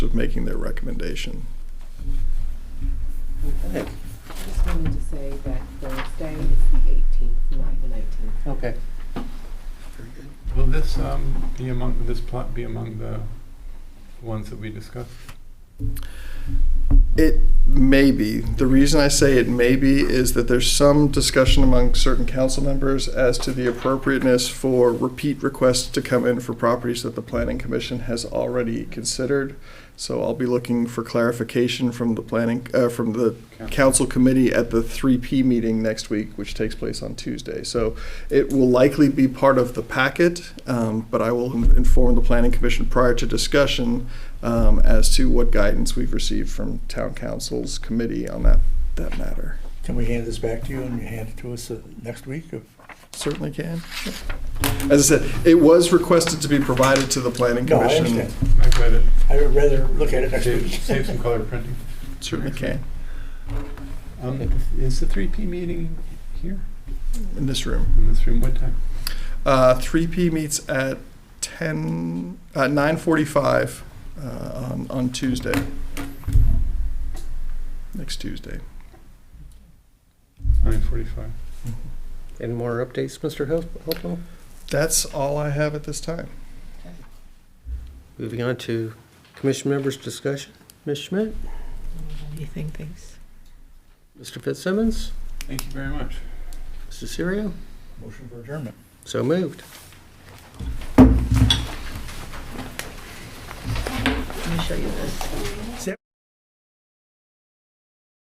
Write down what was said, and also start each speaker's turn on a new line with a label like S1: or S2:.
S1: of making their recommendation.
S2: I
S3: Okay.
S2: just wanted to say that Thursday is the eighteenth, not the nineteenth.
S3: Okay.
S4: Will this um, be among, will this plot be among the ones that we discussed?
S1: It may be. The reason I say it may be is that there's some discussion among certain council members as to the appropriateness for repeat requests to come in for properties that the planning commission has already considered. So I'll be looking for clarification from the planning, uh, from the council committee at the three P meeting next week, which takes place on Tuesday. So it will likely be part of the packet, um, but I will in- inform the planning commission prior to discussion um, as to what guidance we've received from town council's committee on that, that matter.
S5: Can we hand this back to you and you hand it to us uh, next week? or-
S1: Certainly can. As I said, it was requested to be provided to the planning
S5: No, I
S1: commission.
S5: understand.
S4: I've read it.
S5: I would rather look at it next
S4: Save-
S5: week.
S4: Save some color printing.
S1: Certainly can,
S4: Um, Is the 3P meeting here
S1: in this room.
S4: in this room? What time?
S1: Uh, 3P meets at 10, uh, 9:45 uh, on, on Tuesday. Next Tuesday.
S4: 9:45.
S3: Any more updates, Mr. Hel- Hopewell?
S1: That's all I have at this time.
S3: Moving on to commission members' discussion. Ms. Schmidt,
S6: Anything, thanks.
S3: Mr. Fitzsimmons,
S4: Thank you very much.
S3: Mr. Serio,
S5: Motion for adjournment.
S3: so moved.
S6: Let me show you this.